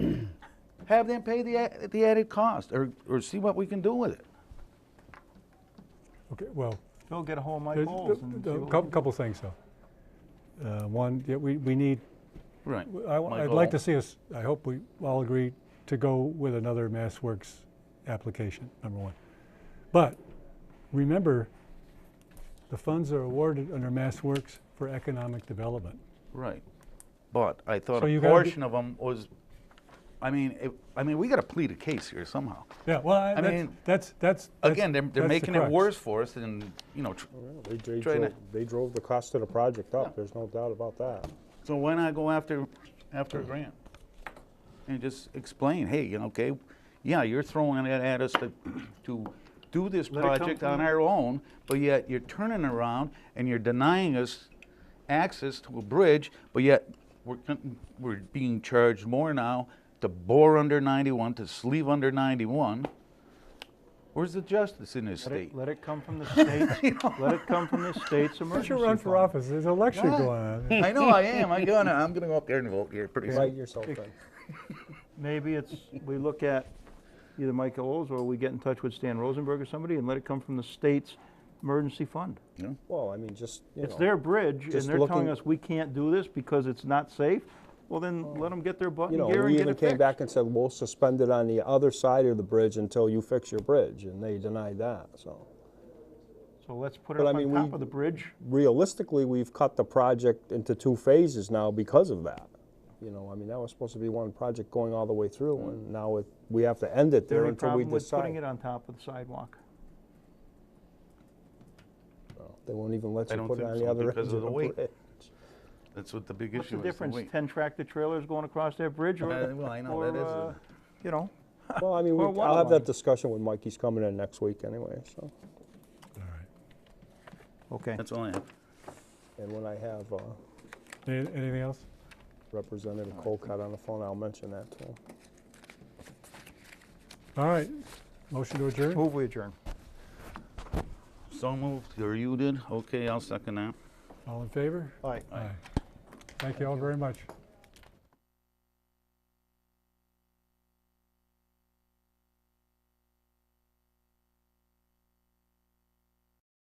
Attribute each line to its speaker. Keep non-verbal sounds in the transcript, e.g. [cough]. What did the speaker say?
Speaker 1: have them pay the, a- the added cost or, or see what we can do with it.
Speaker 2: Okay, well,
Speaker 3: Phil, get a hold of
Speaker 2: a
Speaker 3: Mike Bowles and see what we can
Speaker 2: couple, couple things though. Uh, one, yeah, we, we need,
Speaker 1: Right.
Speaker 2: I, would like to see us, I hope we all agree to go with another MassWorks application, number one. But remember, the funds are awarded under MassWorks for economic development.
Speaker 1: Right. But I thought
Speaker 2: So
Speaker 1: a
Speaker 2: you gotta be-
Speaker 1: portion of them was, I mean, it, I mean, we got to plead a case here somehow.
Speaker 2: Yeah, well, I,
Speaker 1: I
Speaker 2: that's,
Speaker 1: mean,
Speaker 2: that's, that's.
Speaker 1: Again, they're, they're
Speaker 2: that's the
Speaker 1: making it
Speaker 2: crux.
Speaker 1: worse for us and, you know, tr-
Speaker 4: Well, They, they,
Speaker 1: Trying to-
Speaker 4: drove, they drove the cost of the project up, there's no doubt about that.
Speaker 1: so why not go after, after a grant? And just explain, hey, you know, okay, yeah, you're throwing it at us to, [clears throat] to do this
Speaker 3: Let it come
Speaker 1: project
Speaker 3: from
Speaker 1: on
Speaker 3: you.
Speaker 1: our own, but yet you're turning around and you're denying us access to a bridge, but yet we're, con- we're being charged more now to bore under 91, to sleeve under 91. Where's the justice in this
Speaker 3: Let
Speaker 1: state?
Speaker 3: it, let it come from
Speaker 4: [laughs]
Speaker 3: the state's, let it come from the state's
Speaker 2: Why don't
Speaker 3: emergency
Speaker 2: you run for
Speaker 3: fund.
Speaker 2: office? There's an election
Speaker 1: God.
Speaker 2: going
Speaker 1: [laughs]
Speaker 2: on.
Speaker 1: I know I am. I'm gonna. I'm gonna go up there and vote here pretty
Speaker 4: Write
Speaker 1: soon.
Speaker 4: yourself in.
Speaker 3: Maybe it's, we look at either Mike Bowles or we get in touch with Stan Rosenberg or somebody and let it come from the state's emergency fund.
Speaker 4: Well, I mean, just, you know.
Speaker 3: It's their bridge and
Speaker 4: just
Speaker 3: they're telling
Speaker 4: looking-
Speaker 3: us we can't do this because it's not safe. Well, then let them get their butt
Speaker 4: Oh. You
Speaker 3: in
Speaker 4: know,
Speaker 3: gear
Speaker 4: we
Speaker 3: and get
Speaker 4: even
Speaker 3: it
Speaker 4: came
Speaker 3: fixed.
Speaker 4: back and said, we'll suspend it on the other side of the bridge until you fix your bridge, and they denied that, so.
Speaker 3: So let's put it
Speaker 4: But I
Speaker 3: up on
Speaker 4: mean,
Speaker 3: top
Speaker 4: we-
Speaker 3: of the bridge.
Speaker 4: Realistically, we've cut the project into two phases now because of that. You know, I mean, that was supposed to be one project going all the way through, and now it, we have to end it
Speaker 3: Mm-hmm. There
Speaker 4: there
Speaker 3: any
Speaker 4: until we
Speaker 3: problem with putting
Speaker 4: decide.
Speaker 3: it on top of the sidewalk?
Speaker 4: No, They won't even let
Speaker 1: I
Speaker 4: you
Speaker 1: don't
Speaker 4: put it
Speaker 1: think
Speaker 4: on
Speaker 1: so,
Speaker 4: the other end
Speaker 1: because of the weight.
Speaker 4: bridge.
Speaker 1: That's what the big
Speaker 3: What's
Speaker 1: issue
Speaker 3: the
Speaker 1: is.
Speaker 3: difference,
Speaker 1: weight.
Speaker 3: ten tractor trailers going across that bridge or?
Speaker 1: Uh, well, I know, that
Speaker 3: or,
Speaker 1: is a-
Speaker 3: uh, You know,
Speaker 4: Well,
Speaker 3: [laughs]
Speaker 4: I mean,
Speaker 3: Or
Speaker 4: we- I'll have
Speaker 3: waterline.
Speaker 4: that discussion with Mike, he's coming in next week anyway, so.
Speaker 3: okay.
Speaker 1: That's all I have.
Speaker 4: And when I have uh,
Speaker 2: Any- Anything else?
Speaker 4: Representative Colcott on the phone, I'll mention that to him.
Speaker 2: All right, motion to adjourn?
Speaker 3: Move we adjourn.
Speaker 1: So moved, or you did? Okay, I'll second that.
Speaker 2: All in favor?
Speaker 3: All right.
Speaker 2: Aye. Thank you all very much.